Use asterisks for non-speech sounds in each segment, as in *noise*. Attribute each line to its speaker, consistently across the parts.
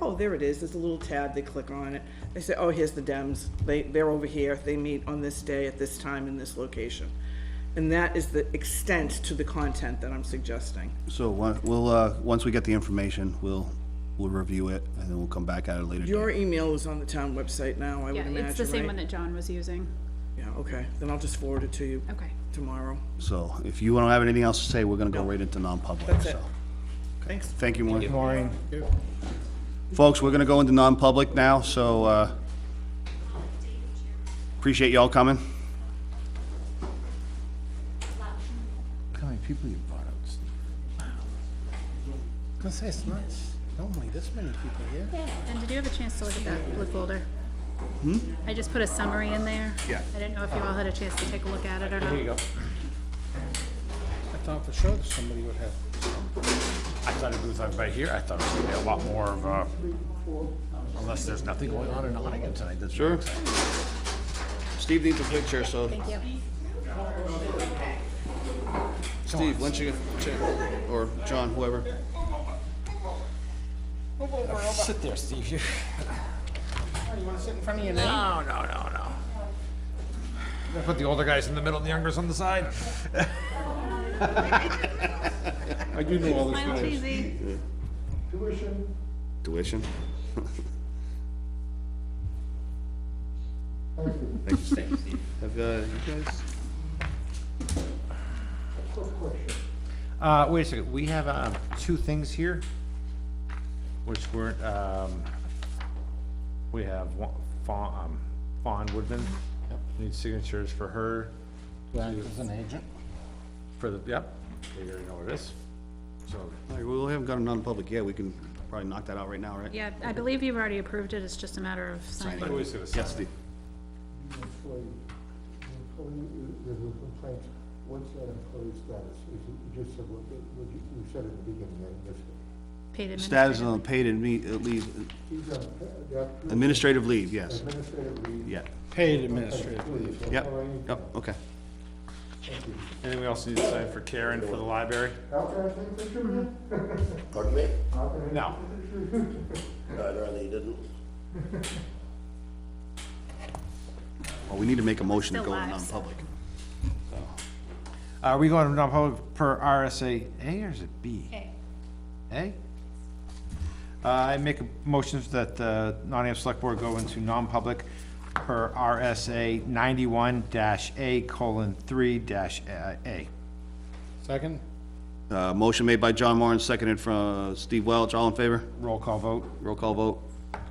Speaker 1: Oh, there it is, there's a little tab, they click on it. They say, oh, here's the Dems, they, they're over here, they meet on this day at this time in this location. And that is the extent to the content that I'm suggesting.
Speaker 2: So, wha- we'll, uh, once we get the information, we'll, we'll review it, and then we'll come back at it later.
Speaker 1: Your email is on the town website now, I would
Speaker 3: Yeah,
Speaker 1: imagine,
Speaker 3: it's the same
Speaker 1: right?
Speaker 3: one that John was using.
Speaker 1: Yeah, okay, then I'll just forward it to you
Speaker 3: Okay.
Speaker 1: tomorrow.
Speaker 2: So, if you don't have anything else to say, we're gonna go right into non-public,
Speaker 1: That's it.
Speaker 2: so.
Speaker 1: Thanks.
Speaker 2: Thank you, Maureen. Folks, we're gonna go into non-public now, so, uh, appreciate y'all coming.
Speaker 4: Look how many people you brought out, Steve. I was gonna say, it's not normally this many people here.
Speaker 3: And did you have a chance to look at that blue folder? I just put a summary in there.
Speaker 2: Yeah.
Speaker 3: I didn't know if you all had a chance to take a look at it or not.
Speaker 4: I thought for sure that somebody would have.
Speaker 5: I thought it was like right here. I thought it was gonna be a lot more of a, unless there's nothing going on in the audience tonight. That's
Speaker 2: Sure. Steve needs a picture, so. Thank you. Steve, once you get, check, or John, whoever.
Speaker 5: Sit there, Steve. *laughs* You wanna sit in front of your name? No, no, no, no. Gonna Put the older guys in the middle and the younger's on the side.
Speaker 4: I do know all
Speaker 3: Smile cheesy.
Speaker 4: Tuition.
Speaker 2: Tuition? *laughs* Thank you, Steve. Have, uh, you guys?
Speaker 6: Uh, wait a second, we have, um, two things here, which weren't, um, we have one, Fawn, um, Fawn Woodman, needs signatures for her,
Speaker 4: That is an agent.
Speaker 6: for the, yep, they already know what it is. So,
Speaker 2: All right, well, we haven't got a non-public yet, we can probably knock that out right now, right?
Speaker 3: Yeah, I believe you've already approved it. It's just a matter of signing.
Speaker 6: I always gonna say,
Speaker 2: Yes, Steve.
Speaker 7: employee, employee, there's a complaint, what's that employee status? Is it, you just said, what, what you, you said at the beginning, I missed it.
Speaker 3: Paid
Speaker 2: Status
Speaker 3: administrative.
Speaker 2: on paid and me, uh, leave,
Speaker 7: He's on, pa- that
Speaker 2: administrative leave, yes,
Speaker 7: administrative leave.
Speaker 2: yeah,
Speaker 4: Paid administrator.
Speaker 7: Leave, that's
Speaker 2: yep,
Speaker 7: all I need to
Speaker 2: yep,
Speaker 7: know.
Speaker 2: okay.
Speaker 6: and then we also need to sign for Karen for the library.
Speaker 7: How can I take a picture of you?
Speaker 8: Pardon me?
Speaker 7: How can I-
Speaker 6: No,
Speaker 8: No, I'd rather you didn't.
Speaker 2: Well, we need to make a motion to
Speaker 3: Still
Speaker 2: go into
Speaker 3: live, so.
Speaker 2: non-public.
Speaker 6: are we going to non-public per RSA A or is it B?
Speaker 3: Okay.
Speaker 6: A? Uh, I make a motion that the Nottingham Select Board go into non-public per RSA ninety-one dash A colon three dash uh, A.
Speaker 4: Second,
Speaker 2: Uh, motion made by John Warren, seconded from uh, Steve Welch, all in favor?
Speaker 6: Roll call vote.
Speaker 2: Roll call vote,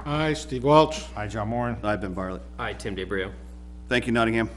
Speaker 4: aye, Steve Welch.
Speaker 6: Aye, John Moran.
Speaker 2: I've been Bartlett.
Speaker 9: Hi, Tim DeBrio.
Speaker 2: Thank you, Nottingham.